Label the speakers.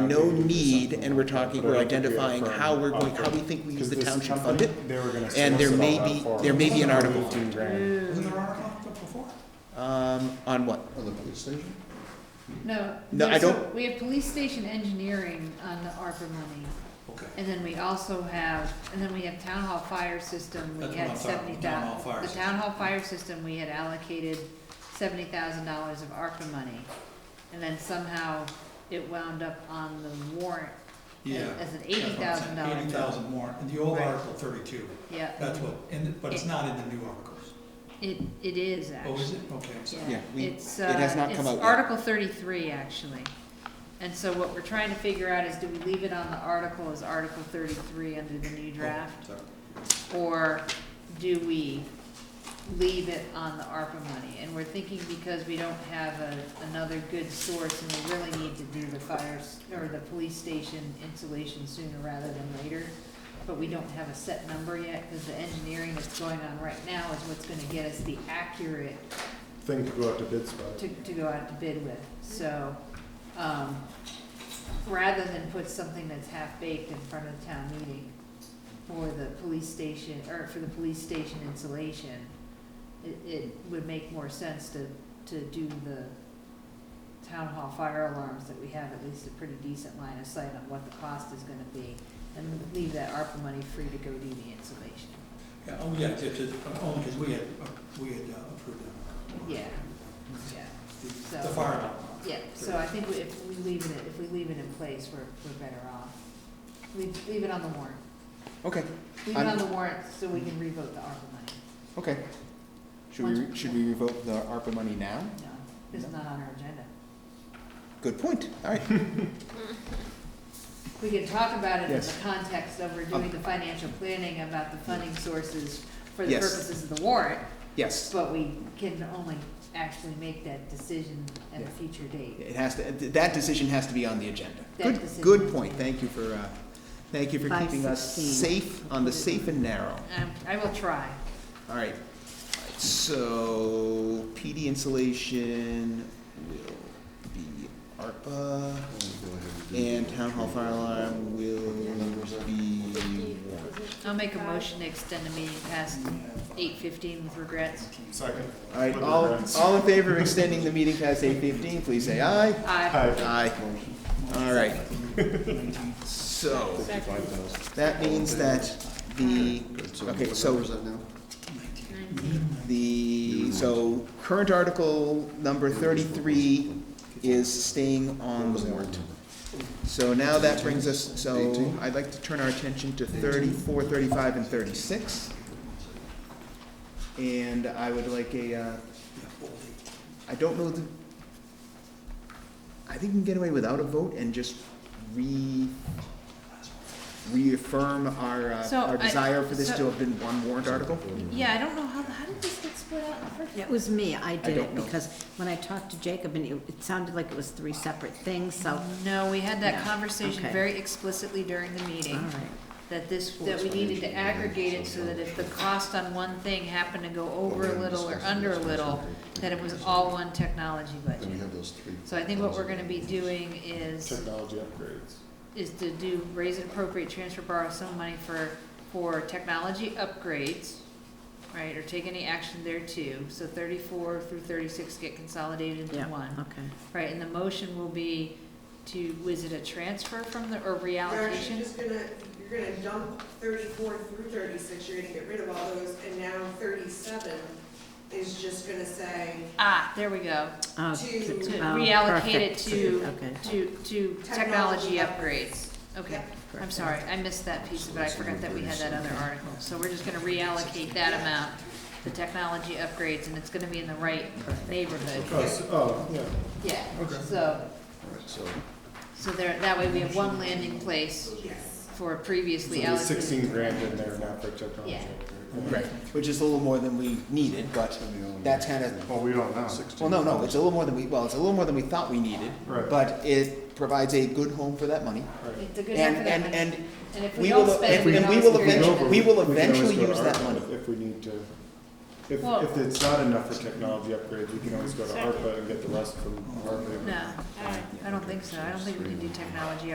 Speaker 1: no need, and we're talking,
Speaker 2: But I
Speaker 1: we're
Speaker 2: don't think we
Speaker 1: identifying
Speaker 2: affirm-
Speaker 1: how we're going, how we
Speaker 2: okay.
Speaker 1: think we,
Speaker 2: Because
Speaker 1: the
Speaker 2: this
Speaker 1: town should fund
Speaker 2: company,
Speaker 1: it.
Speaker 2: They were gonna
Speaker 1: and there
Speaker 2: solicit
Speaker 1: may
Speaker 2: all that
Speaker 1: be-
Speaker 2: for
Speaker 1: there may be an article.
Speaker 2: Fifteen grand.
Speaker 3: Wasn't there an article before?
Speaker 1: Um, on what?
Speaker 4: Or the police station?
Speaker 5: No.
Speaker 1: No, I
Speaker 5: there's a-
Speaker 1: don't-
Speaker 5: We have police station engineering on the ARPA money,
Speaker 3: Okay.
Speaker 5: and then we also have, and then we have town hall fire system, we
Speaker 3: That's what
Speaker 5: had
Speaker 3: I'm talking
Speaker 5: seventy
Speaker 3: about,
Speaker 5: thousand.
Speaker 3: town hall fire
Speaker 5: The town hall fire system, we had allocated seventy thousand dollars of ARPA money, and then somehow it wound up on the warrant. as-
Speaker 3: Yeah.
Speaker 5: As an eighty thousand dollar.
Speaker 3: Eighty thousand more, in the old
Speaker 5: Right.
Speaker 3: Article thirty-two,
Speaker 5: Yeah,
Speaker 3: that's what, and, but it's not in the new articles.
Speaker 5: it, it is actually.
Speaker 3: Oh, is it? Okay, I'm sorry.
Speaker 1: Yeah, we-
Speaker 5: It's,
Speaker 1: it has
Speaker 5: uh,
Speaker 1: not come
Speaker 5: it's
Speaker 1: out yet.
Speaker 5: Article thirty-three, actually. And so what we're trying to figure out is do we leave it on the article as Article thirty-three under the new draft?
Speaker 3: Oh, Sorry.
Speaker 5: Or do we leave it on the ARPA money? And we're thinking because we don't have a, another good source and we really need to do the fires, or the police station insulation sooner rather than later. But we don't have a set number yet, cause the engineering that's going on right now is what's gonna get us the accurate
Speaker 2: Thing to go out to bid spot.
Speaker 5: to, to go out to bid with, so, um, rather than put something that's half-baked in front of the town meeting for the police station, or for the police station insulation, it, it would make more sense to, to do the town hall fire alarms that we have at least a pretty decent line of sight on what the cost is gonna be, and leave that ARPA money free to go do the insulation,
Speaker 3: Yeah, oh, yeah, it's, it's, only because we had, uh, we had uh, approved that.
Speaker 5: yeah, yeah.
Speaker 3: The
Speaker 5: So-
Speaker 3: the fire alarm.
Speaker 5: Yeah, so I think we- if we leave it, if we leave it in place, we're, we're better off. We leave it on the warrant.
Speaker 1: Okay,
Speaker 5: Leave it on the warrant so we can revote the ARPA money.
Speaker 1: okay. Should we, re- should we revoke the ARPA money now?
Speaker 5: No, it's not on our agenda.
Speaker 1: Good point, all right.
Speaker 5: We can talk about it in the
Speaker 1: Yes. Um,
Speaker 5: context of we're doing the financial planning about the funding sources for the
Speaker 1: Yes.
Speaker 5: purposes of the warrant,
Speaker 1: Yes,
Speaker 5: but we can only actually make that decision at a
Speaker 1: Yeah.
Speaker 5: future date.
Speaker 1: it has to, that decision has to be on the agenda.
Speaker 5: That
Speaker 1: Good,
Speaker 5: decision has
Speaker 1: good
Speaker 5: to
Speaker 1: point,
Speaker 5: be-
Speaker 1: thank you for, uh, thank you for
Speaker 5: Five
Speaker 1: keeping us
Speaker 5: sixteen.
Speaker 1: safe, on the safe and narrow.
Speaker 5: Um, I will try.
Speaker 1: All right, All right. so PD insulation will be ARPA, and town hall fire alarm will be warrant.
Speaker 5: I'll make a motion to extend the meeting past eight fifteen with regrets.
Speaker 2: Second.
Speaker 1: All right, all, all in favor of extending the meeting past eight fifteen, please say aye.
Speaker 5: Aye.
Speaker 2: Hi.
Speaker 1: Aye. All right. So, that means that the, okay, so
Speaker 5: Mm-hmm.
Speaker 1: the, so current article number thirty-three is staying on the warrant. So now that brings us, so
Speaker 4: Eighteen.
Speaker 1: I'd like to turn our attention to thirty-four, thirty-five, and thirty-six. And I would like a, uh, I don't know the, I think we can get away without a vote and just re, reaffirm our, uh,
Speaker 5: So
Speaker 1: our
Speaker 5: I-
Speaker 1: desire for this to
Speaker 5: so-
Speaker 1: have been one warrant article.
Speaker 5: Yeah, I don't know, how, how did this get split out in the first
Speaker 6: It was me, I did
Speaker 1: don't
Speaker 6: it,
Speaker 1: know.
Speaker 6: because when I talked to Jacob, and it, it sounded like it was three separate things, so,
Speaker 5: No, we had that
Speaker 6: Yeah,
Speaker 5: conversation
Speaker 6: okay.
Speaker 5: very explicitly during the
Speaker 1: Mm-hmm.
Speaker 6: all
Speaker 5: meeting,
Speaker 6: right.
Speaker 5: that this, that we needed to aggregate it so that if the cost on one thing happened to go over a little or under a little, that it was all one technology
Speaker 4: Then we
Speaker 5: budget.
Speaker 4: have those three.
Speaker 5: So I think what we're gonna be doing is,
Speaker 2: Technology upgrades.
Speaker 5: is to do raise and appropriate, transfer, borrow some money for, for technology upgrades, right, or take any action there too. So thirty-four through thirty-six get consolidated into
Speaker 6: Yeah,
Speaker 5: one.
Speaker 6: Okay.
Speaker 5: Right, and the motion will be to, was it a transfer from the, or
Speaker 7: You're actually
Speaker 5: reallocation?
Speaker 7: just gonna, you're gonna dump thirty-four through thirty-six, you're gonna get rid of all those, and now thirty-seven is just gonna say
Speaker 5: Ah, there we go.
Speaker 6: Oh,
Speaker 7: To
Speaker 6: t-
Speaker 5: To
Speaker 6: oh,
Speaker 5: reallocate it
Speaker 6: perfect.
Speaker 5: to,
Speaker 6: Okay.
Speaker 5: to, to technology
Speaker 7: Technology
Speaker 5: upgrades. Okay, I'm
Speaker 6: perfect.
Speaker 5: sorry, I missed that piece of it, I forgot that we had that other article. So we're just gonna reallocate that amount, the technology upgrades, and it's gonna be in the right neighborhood.
Speaker 2: Oh, so- oh, yeah.
Speaker 5: Yeah, so,
Speaker 4: Alright, so
Speaker 5: so there, that way we have one landing place
Speaker 7: yes.
Speaker 5: for
Speaker 2: So
Speaker 5: previously
Speaker 2: there's
Speaker 5: allocated.
Speaker 2: sixteen grand in there now for technology
Speaker 5: Yeah.
Speaker 2: upgrade.
Speaker 1: Right, which is a little more than we needed, but that's kind of,
Speaker 2: Well, we don't know.
Speaker 1: well, no, no, it's a little more than we, well, it's a little more than we thought we needed.
Speaker 2: Right.
Speaker 1: But it provides a good home for that money.
Speaker 5: It's a good
Speaker 1: And,
Speaker 5: effort, that
Speaker 1: and,
Speaker 5: money.
Speaker 1: and
Speaker 5: And if
Speaker 1: we
Speaker 5: we don't
Speaker 1: will-
Speaker 5: spend
Speaker 1: if
Speaker 5: it,
Speaker 1: we-
Speaker 5: we can
Speaker 1: and we
Speaker 5: always
Speaker 1: will
Speaker 5: create
Speaker 1: eventually-
Speaker 5: another.
Speaker 1: we will
Speaker 2: can always
Speaker 1: eventually
Speaker 2: go to
Speaker 1: use that
Speaker 2: ARPA
Speaker 1: money.
Speaker 2: If we need to. If,
Speaker 5: Well-
Speaker 2: if it's not enough for technology upgrades, we can always go to
Speaker 5: Second.
Speaker 2: ARPA and get the rest from ARPA.
Speaker 5: No, I don't think so. I don't think we can do technology